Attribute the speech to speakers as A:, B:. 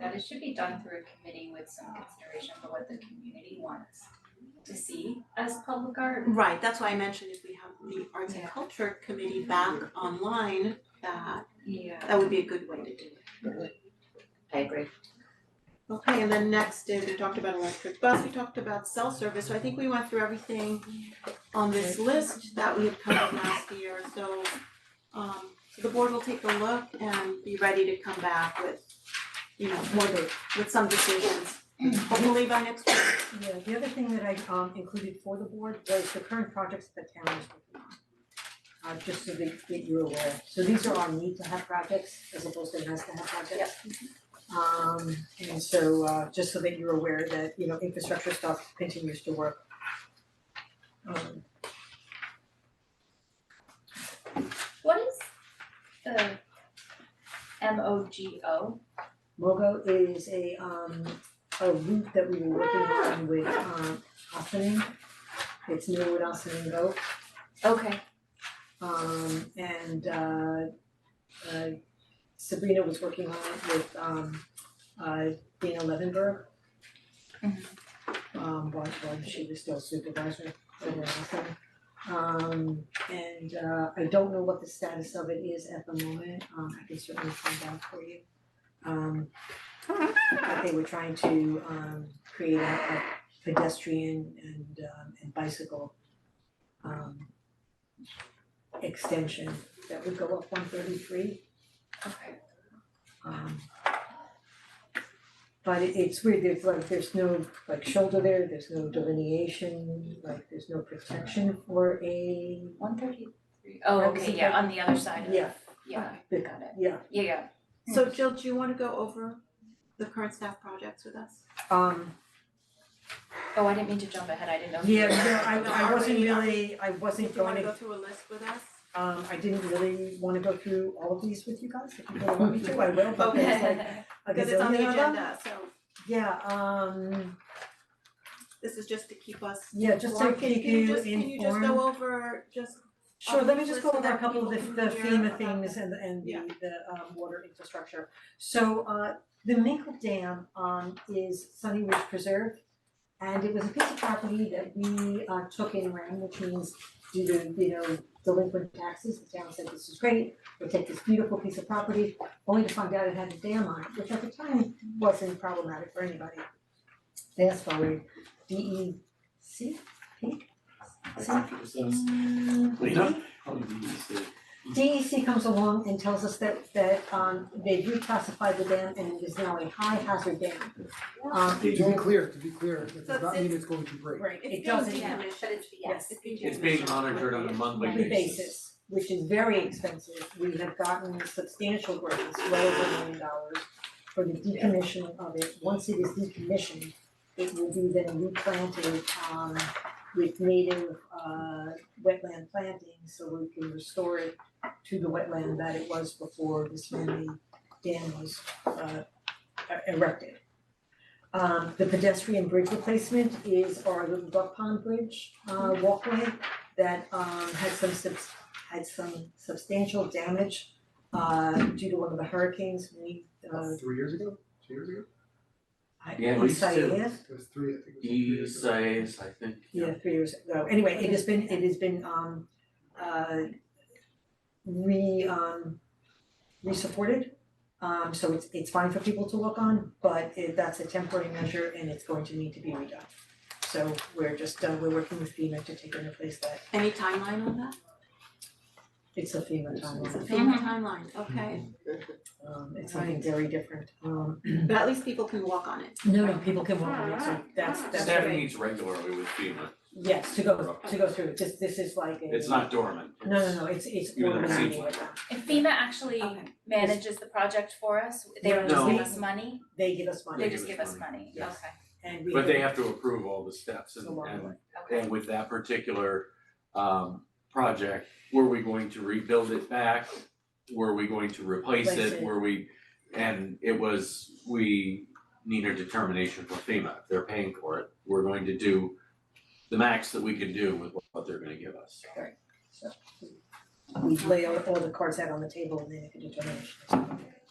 A: that it should be done through a committee with some consideration for what the community wants to see as public art.
B: Right, that's why I mentioned if we have the Arts and
A: Yeah.
B: Culture Committee back online, that
A: Yeah.
B: that would be a good way to do it.
C: I agree.
B: Okay, and then next is, we talked about electric bus, we talked about cell service, so I think we went through everything on this list that we had covered last year, so um the board will take a look and be ready to come back with, you know, more to- with some decisions, hopefully by next week.
D: Yeah, the other thing that I um included for the board was the current projects that the town is working on. Uh just so that that you're aware, so these are our need to have projects as opposed to nice to have projects. Um and so uh just so that you're aware that, you know, infrastructure stuff continues to work. Um
A: What is the M O G O?
D: Mogo is a um a route that we were working on with um Austining. It's new with Austining Go.
A: Okay.
D: Um and uh uh Sabrina was working on it with um uh Dana Levenberg. Um while while she was still supervisor over at Austin. Um and uh I don't know what the status of it is at the moment, um I can certainly find out for you. Um but they were trying to um create a a pedestrian and um and bicycle um extension that would go up one thirty-three.
A: Okay.
D: Um but it it's weird, there's like, there's no like shoulder there, there's no delineation, like there's no protection for a,
A: One thirty three. Oh,
D: That was
A: okay,
D: the
A: yeah,
D: third-
A: on the other side of,
D: yeah,
A: yeah,
D: the-
A: got it.
D: yeah.
A: Yeah, yeah.
B: So Jill, do you wanna go over the current staff projects with us?
D: Um
A: Oh, I didn't mean to jump ahead. I didn't know.
D: yeah,
B: no,
D: no, I I wasn't
B: Are
D: really, I wasn't
B: Do you wanna
D: going
B: go
D: to,
B: through a list with us?
D: um I didn't really wanna go through all of these with you guys, if you don't want me to, I will, but there's like a
B: Because it's on
D: gazillion
B: the
D: of them.
B: agenda, so
D: Yeah, um
B: this is just to keep us
D: yeah, just to
B: informed. Can-
D: keep
B: can you
D: you
B: just-
D: informed.
B: Can you just go over just
D: Sure, let me just go
B: Obviously,
D: over a couple of
B: Um, people
D: the the
B: can hear
D: FEMA
B: about
D: things
B: that.
D: and the and the
B: Yeah.
D: the um water infrastructure. So uh the Minkle Dam um is Sunny Ridge Preserve. And it was a piece of property that we uh took in Ram, which means due to, you know, delinquent taxes, the town said this is great. We'll take this beautiful piece of property, only to find out it had a dam on it, which at the time wasn't problematic for anybody. Fast forward, D E C P C DEC E comes along and tells us that that um they reclassified the dam and it is now a high hazard dam. Um
E: To be clear, to be clear, it
B: So
E: does not mean
B: it's-
E: it's going to break.
D: right, it
B: It's
D: doesn't
B: being decommissioned, but it's
D: yes.
B: it's being decommissioned.
F: It's being monitored on a monthly
D: monthly basis, which is very expensive. We have gotten substantial grants, well over a million dollars for the decommissioning of it. Once it is decommissioned, it will be then replanted um with native uh wetland planting, so we can restore it to the wetland that it was before this man-made dam was uh erected. Um the pedestrian bridge replacement is our Little Duck Pond Bridge uh walkway that um had some subs- had some substantial damage uh due to one of the hurricanes we uh
E: Three years ago, two years ago,
D: I
F: Yeah, at
D: on
F: least two.
D: Said,
E: it was three, I think it was three
F: E
E: years ago.
F: size, I think.
D: yeah, three years ago, anyway, it has been, it has been um uh re um re-supported. Um so it's it's fine for people to look on, but it that's a temporary measure and it's going to need to be redone. So we're just uh we're working with FEMA to take and replace that,
B: Any timeline on that?
D: it's a FEMA
B: It's a
D: timeline,
B: FEMA timeline, okay,
D: um it's something very different, um
B: but at least people can walk on it.
D: no, no, people can walk on it, so that's ah, that's
F: Staff
D: great.
F: meets regularly with FEMA,
D: Yes, to go to go through, this this is like a.
F: it's not dormant,
D: No, no, no, it's it's
F: Even though it
D: organized.
F: seems like
A: If FEMA actually
B: Okay.
A: manages the project for us, they don't just
F: No.
A: give us money,
D: They give us
A: they
D: money
F: They
A: just give us money, okay, okay.
F: yes.
D: and we.
F: but they have to approve all the steps and
D: Along the
F: and and with that particular um project, were we going to rebuild it back? Were we going to replace
D: Replace
F: it?
D: it.
F: Were we, and it was, we need a determination from FEMA, they're paying for it, we're going to do the max that we can do with what they're gonna give us.
D: We lay all all the cards out on the table and they make a determination.